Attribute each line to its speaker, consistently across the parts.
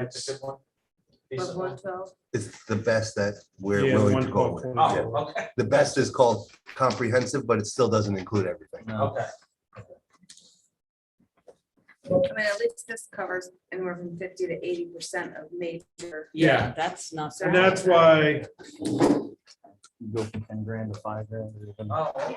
Speaker 1: That's.
Speaker 2: But one twelve,
Speaker 3: It's the best that we're
Speaker 1: Yeah,
Speaker 3: willing to go
Speaker 1: one twelve
Speaker 3: with.
Speaker 1: point
Speaker 3: Yeah.
Speaker 4: Oh, okay,
Speaker 3: The best is called comprehensive, but it still doesn't include everything.
Speaker 4: okay.
Speaker 2: I mean, at least this covers anywhere from fifty to eighty percent of major.
Speaker 1: Yeah,
Speaker 5: That's not.
Speaker 1: and that's why,
Speaker 6: Go from ten grand to five grand, or even-
Speaker 4: Oh, okay.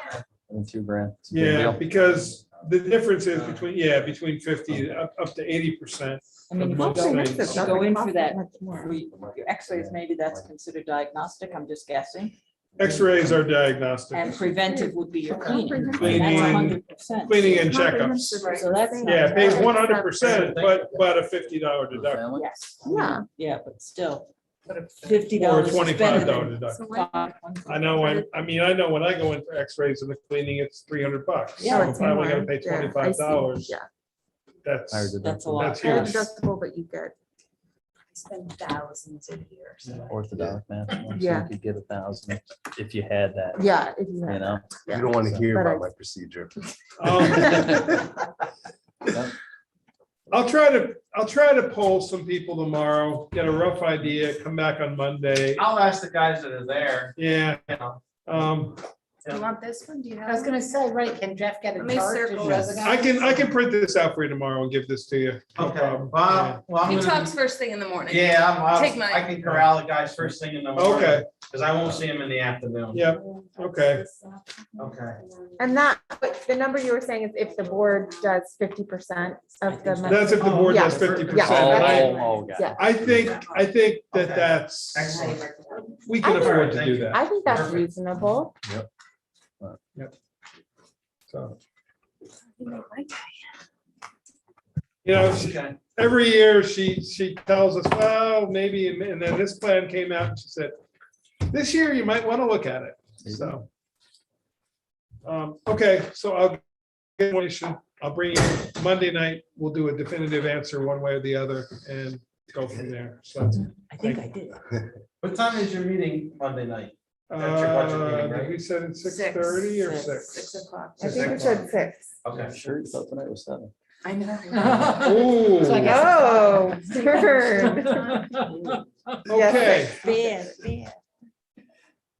Speaker 6: even two grand. It's a big
Speaker 1: yeah,
Speaker 6: deal.
Speaker 1: because the difference is between, yeah, between fifty up, up to eighty percent.
Speaker 5: I mean, if you
Speaker 1: Mostly
Speaker 5: go,
Speaker 1: makes
Speaker 5: if you
Speaker 1: it
Speaker 5: go in for that, we, your x-rays, maybe that's considered diagnostic, I'm just guessing,
Speaker 1: X-rays are diagnostic,
Speaker 5: and preventive would be your cleaning. That's
Speaker 1: Cleaning.
Speaker 5: hundred percent.
Speaker 1: cleaning and checkups.
Speaker 5: So that's. not-
Speaker 1: Yeah, it pays one hundred percent, but, but a fifty dollar
Speaker 6: For the
Speaker 1: deductible
Speaker 6: family?
Speaker 5: Yes.
Speaker 7: Yeah.
Speaker 5: Yeah, but still, fifty
Speaker 1: or
Speaker 5: dollars is
Speaker 1: twenty-five
Speaker 5: better
Speaker 1: dollar
Speaker 5: than.
Speaker 1: deductible.
Speaker 2: So when-
Speaker 5: five.
Speaker 1: I know, I, I mean, I know when I go in for X-rays and the cleaning, it's three hundred bucks.
Speaker 5: Yeah,
Speaker 1: So
Speaker 7: Oh,
Speaker 1: if
Speaker 7: it's
Speaker 1: I only gotta
Speaker 7: more.
Speaker 1: pay
Speaker 7: Yeah, I see.
Speaker 1: twenty-five dollars,
Speaker 7: Yeah.
Speaker 1: that's,
Speaker 6: Higher deductible.
Speaker 5: That's a lot.
Speaker 1: That's
Speaker 7: Higher
Speaker 1: Yes.
Speaker 7: deductible, but you get,
Speaker 2: Spend thousands of years.
Speaker 6: Orthodox math. so
Speaker 7: Yeah.
Speaker 6: You could get a thousand if you had that,
Speaker 7: yeah, if you
Speaker 6: you
Speaker 7: have.
Speaker 6: know?
Speaker 3: You don't want to hear
Speaker 7: But I-
Speaker 3: about my procedure.
Speaker 1: um,
Speaker 6: Yep.
Speaker 1: I'll try to, I'll try to poll some people tomorrow, get a rough idea, come back on Monday.
Speaker 4: I'll ask the guys that are there,
Speaker 1: Yeah,
Speaker 4: you know.
Speaker 1: um,
Speaker 2: Do you want this one? Do you have?
Speaker 8: I was gonna say, right, can Jeff get
Speaker 2: Let
Speaker 8: a
Speaker 2: me
Speaker 8: chart?
Speaker 7: Oh,
Speaker 2: circle
Speaker 8: Does-
Speaker 2: this.
Speaker 1: I can, I can print this out for you tomorrow and give this to you. No
Speaker 4: Okay,
Speaker 1: problem.
Speaker 4: Bob, well, I'm
Speaker 2: He
Speaker 4: gonna,
Speaker 2: talks first thing in the morning.
Speaker 4: yeah, I'm,
Speaker 2: Take
Speaker 4: I'll-
Speaker 2: mine.
Speaker 4: I can corral the guys first thing in the
Speaker 1: Yeah.
Speaker 4: morning.
Speaker 1: Okay,
Speaker 4: Cause I won't see them in the afternoon.
Speaker 1: yeah, okay.
Speaker 4: Okay.
Speaker 7: And that, but the number you were saying is if the board does fifty percent of the. men-
Speaker 1: That's if the board does
Speaker 7: Yeah.
Speaker 1: fifty
Speaker 6: Oh,
Speaker 1: percent. I,
Speaker 7: Yeah.
Speaker 6: oh, got it.
Speaker 7: Yeah.
Speaker 1: I think, I think that
Speaker 4: Okay.
Speaker 1: that's,
Speaker 4: Excellent.
Speaker 1: we can
Speaker 7: I think-
Speaker 1: afford to do that.
Speaker 7: I think that's
Speaker 4: Perfect.
Speaker 7: reasonable.
Speaker 1: So,
Speaker 2: Well,
Speaker 1: You know, she-
Speaker 4: Okay.
Speaker 1: every year she, she tells us, well, maybe, and and then this plan came out and she said, this year you might want to look at it, so. Um, okay, so I'll, get what you should- I'll bring you, Monday night, we'll do a definitive answer one way or the other and go from there, so.
Speaker 5: I think I did.
Speaker 4: What time is your meeting Monday night? That's your budget
Speaker 1: Uh,
Speaker 4: meeting, right?
Speaker 1: did we said it's six thirty or
Speaker 2: Six
Speaker 1: six?
Speaker 2: o'clock.
Speaker 7: I think we
Speaker 4: Six.
Speaker 7: said six.
Speaker 4: Okay.
Speaker 6: Sure, you thought tonight was seven.
Speaker 2: I know.
Speaker 1: Ooh,
Speaker 5: So I guess-
Speaker 7: Oh, turn.
Speaker 1: okay,
Speaker 7: Yes, yes, yes.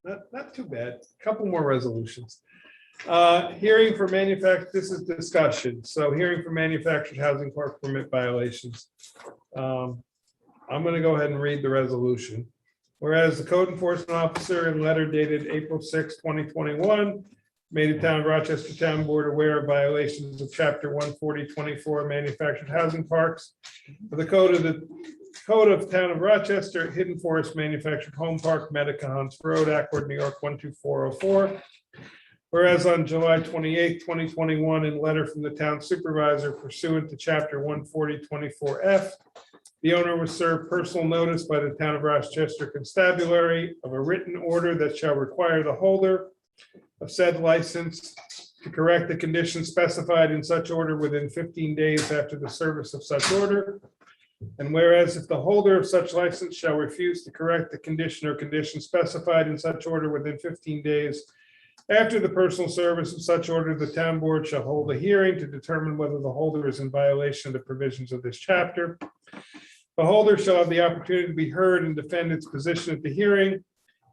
Speaker 1: not, not too bad, couple more resolutions. Uh, hearing for manufact, this is discussion, so hearing for manufactured housing park permit violations. Um, I'm gonna go ahead and read the resolution. Whereas the code enforcement officer in letter dated April 6, twenty twenty-one, made the town of Rochester Town Board aware of violations of chapter one forty twenty-four manufactured housing parks. of The code of the Code of Town of Rochester, Hidden Forest Manufactured Home Park, Medicons Road, Accord, New York, one two four oh four. Whereas on July twenty eighth, twenty twenty one, in letter from the town supervisor pursuant to chapter one forty twenty four F. The owner was served personal notice by the town of Rochester Constabulary of a written order that shall require the holder. Of said license to correct the conditions specified in such order within fifteen days after the service of such order. And whereas if the holder of such license shall refuse to correct the condition or condition specified in such order within fifteen days after the personal service of such order, the town board shall hold a hearing to determine whether the holder is in violation of the provisions of this chapter. The holder shall have the opportunity to be heard and defend its position at the hearing.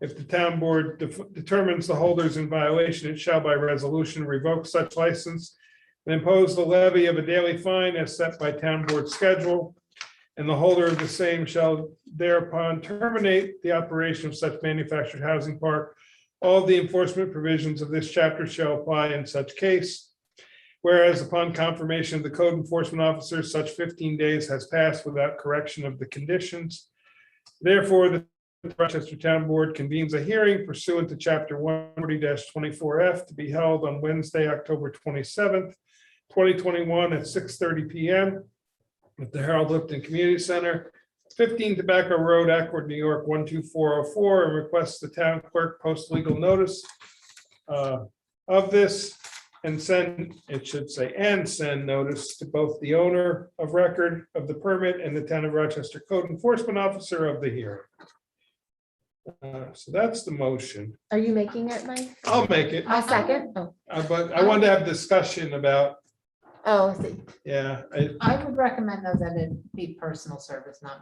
Speaker 1: If the town board def- determines the holder is in violation, it shall by resolution revoke such license and impose the levy of a daily fine as set by town board schedule. And the holder of the same shall thereupon terminate the operation of such manufactured housing park. All the enforcement provisions of this chapter shall apply in such case. Whereas upon confirmation of the code enforcement officer, such fifteen days has passed without correction of the conditions. Therefore, the Rochester Town Board convenes a hearing pursuant to chapter one forty twenty-four F to be held on Wednesday, October twenty-seventh, twenty twenty-one at six thirty P M at the Harold Lipton Community Center, fifteen Tobacco Road, Accord, New York, one two four oh four, and requests the town clerk post legal notice uh, of this and send, it should say, and send notice to both the owner of record of the permit and the town of Rochester Code Enforcement Officer of the hearing. Uh, So that's the motion.
Speaker 7: Are you making it, Mike?
Speaker 1: I'll make it,
Speaker 7: A second? Oh,
Speaker 1: uh, but I wanted to have discussion about,
Speaker 7: oh, I see.
Speaker 1: yeah, I-
Speaker 8: I would recommend though that it be personal service, not